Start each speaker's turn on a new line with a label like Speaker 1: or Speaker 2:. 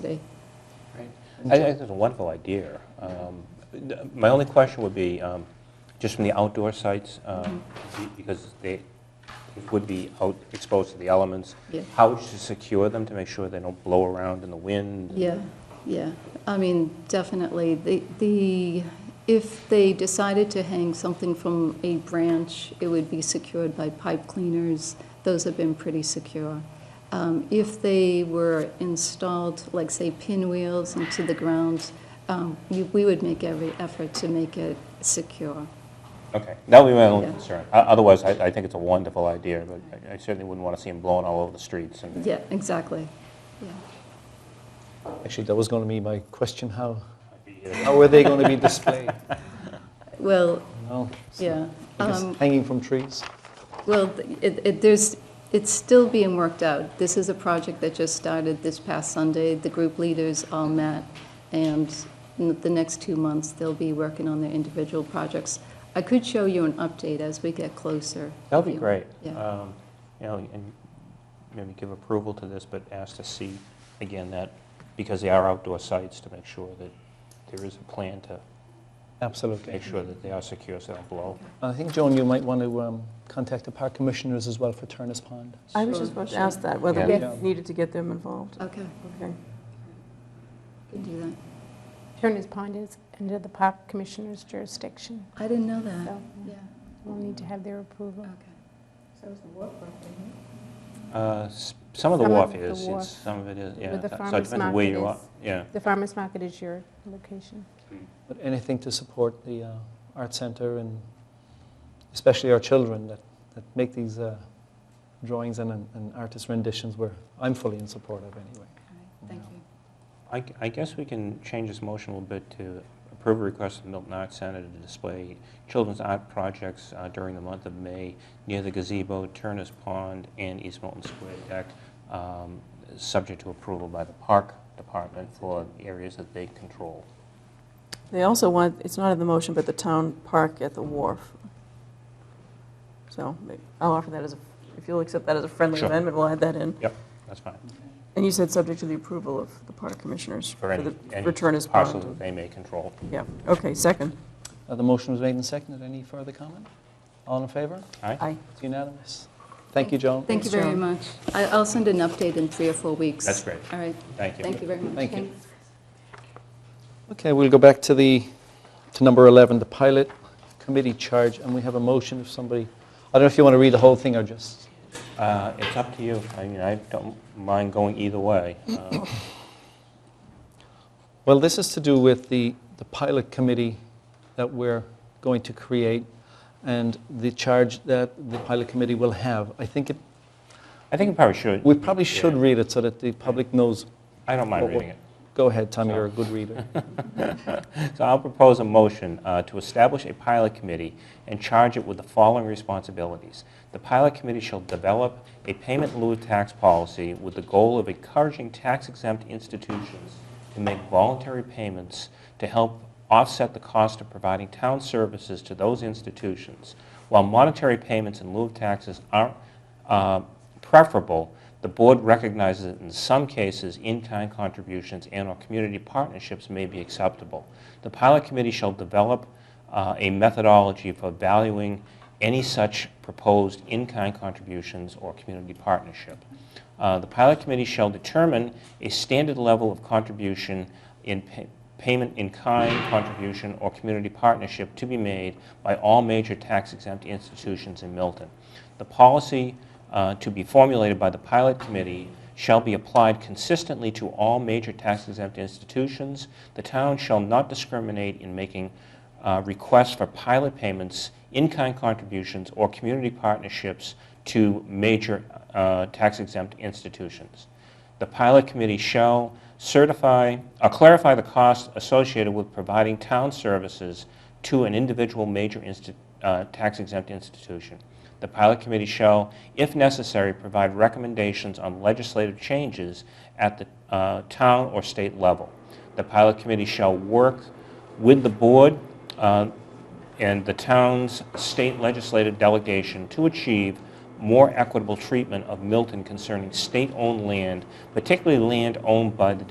Speaker 1: today.
Speaker 2: I I think it's a wonderful idea. Um, th- My only question would be, um, just from the outdoor sites, um,
Speaker 1: Mm-hmm.
Speaker 2: be- because they would be out, exposed to the elements,
Speaker 1: Yeah.
Speaker 2: how would you secure them to make sure they don't blow around in the wind?
Speaker 1: Yeah, yeah. I mean, definitely, the, the if they decided to hang something from a branch, it would be secured by pipe cleaners. Those have been pretty secure. Um, If they were installed, like, say, pinwheels into the ground, um, we we would make every effort to make it secure.
Speaker 2: Okay, that would be my only
Speaker 1: Yeah.
Speaker 2: concern. O- Otherwise, I I think it's a wonderful idea, but I- I certainly wouldn't want to see them blowing all over the streets. and-
Speaker 1: Yeah, exactly, yeah.
Speaker 3: Actually, that was going to be my question, how,
Speaker 2: Yeah.
Speaker 3: how are they going to be displayed?
Speaker 1: Well,
Speaker 3: No, so-
Speaker 1: yeah.
Speaker 3: I guess
Speaker 1: um,
Speaker 3: Hanging from trees?
Speaker 1: Well, it, it, there's, it's still being worked out. This is a project that just started this past Sunday. The group leaders all met, and in the next two months, they'll be working on their individual projects. I could show you an update as we get closer.
Speaker 2: That would
Speaker 1: if
Speaker 2: be
Speaker 1: you-
Speaker 2: great.
Speaker 1: Yeah.
Speaker 2: Um, You know, and maybe give approval to this, but ask to see, again, that, because they are outdoor sites, to make sure that there is a plan to
Speaker 3: Absolutely.
Speaker 2: make sure that they are secure, so they don't blow.
Speaker 3: I think, Joan, you might want to um, contact the park commissioners as well for Turner's Pond.
Speaker 4: I was
Speaker 1: Sure,
Speaker 4: just about to
Speaker 1: sure.
Speaker 4: ask that, whether we
Speaker 3: Yeah.
Speaker 4: needed to get them involved.
Speaker 1: Okay,
Speaker 4: Okay.
Speaker 1: can do that.
Speaker 5: Turner's Pond is under the Park Commissioner's jurisdiction,
Speaker 1: I didn't know that.
Speaker 5: so
Speaker 1: Yeah,
Speaker 5: we'll need to have their approval.
Speaker 1: okay.
Speaker 2: Uh, s- Some of the
Speaker 5: Some of
Speaker 2: wharf
Speaker 5: the
Speaker 2: is,
Speaker 5: wharf.
Speaker 2: it's- some of it is, yeah.
Speaker 5: With the
Speaker 2: So it
Speaker 5: farmer's
Speaker 2: depends where
Speaker 5: market
Speaker 2: you are.
Speaker 5: is-
Speaker 2: Yeah,
Speaker 5: The farmer's market is your location.
Speaker 3: But anything to support the uh, art center and especially our children that, that make these uh, drawings and, and artist renditions, where I'm fully in support of anyway.
Speaker 1: All right, Thank you.
Speaker 2: I g- I guess we can change this motion a little bit to approve a request of the Milton Arts Center to display children's art projects uh, during the month of May near the gazebo, Turner's Pond, and East Milton Square Deck, um, subject to approval by the Park Department for areas that they control.
Speaker 4: They also want, it's not in the motion, but the town park at the wharf. So may- I'll offer that as, a if you'll accept that as a friendly
Speaker 2: Sure.
Speaker 4: amendment, we'll add that in.
Speaker 2: That's fine.
Speaker 4: And you said subject to the approval of the park commissioners.
Speaker 2: For any,
Speaker 4: the
Speaker 2: any
Speaker 4: Return as
Speaker 2: parcels that
Speaker 4: bond.
Speaker 2: they may control.
Speaker 4: Yeah, okay, second.
Speaker 3: Uh, The motion was made and seconded. Any further comment? All in favor?
Speaker 4: Aye.
Speaker 3: It's unanimous. Thank you, Joan.
Speaker 1: Thank you very
Speaker 4: Joan.
Speaker 1: much. I, I'll send an update in three or four weeks.
Speaker 2: That's great.
Speaker 1: All right,
Speaker 2: Thank you.
Speaker 1: thank you very much.
Speaker 3: Thank you. Okay, we'll go back to the, to number 11, the pilot committee charge, and we have a motion if somebody, I don't know if you want to read the whole thing or just,
Speaker 2: Uh, It's up to you. I mean, I don't mind going either way. Uh,
Speaker 3: well, this is to do with the, the pilot committee that we're going to create and the charge that the pilot committee will have. I think it,
Speaker 2: I think we probably should.
Speaker 3: we probably should
Speaker 2: Yeah.
Speaker 3: read it so that the public knows.
Speaker 2: I don't mind
Speaker 3: Well, well-
Speaker 2: reading it.
Speaker 3: Go ahead, Tommy, you're a good reader.
Speaker 2: So I'll propose a motion uh, to establish a pilot committee and charge it with the following responsibilities. The pilot committee shall develop a payment in lieu of tax policy with the goal of encouraging tax-exempt institutions to make voluntary payments to help offset the cost of providing town services to those institutions. While monetary payments in lieu of taxes are uh, preferable, the board recognizes that in some cases, in-kind contributions and/or community partnerships may be acceptable. The pilot committee shall develop uh, a methodology for valuing any such proposed in-kind contributions or community partnership. Uh, The pilot committee shall determine a standard level of contribution in pa- payment in kind, contribution, or community partnership to be made by all major tax-exempt institutions in Milton. The policy uh, to be formulated by the pilot committee shall be applied consistently to all major tax-exempt institutions. The town shall not discriminate in making uh, requests for pilot payments, in-kind contributions, or community partnerships to major uh, tax-exempt institutions. The pilot committee shall certify, or clarify the costs associated with providing town services to an individual major insti- uh, tax-exempt institution. The pilot committee shall, if necessary, provide recommendations on legislative changes at the uh, town or state level. The pilot committee shall work with the board uh, and the town's state legislative delegation to achieve more equitable treatment of Milton concerning state-owned land, particularly land owned by the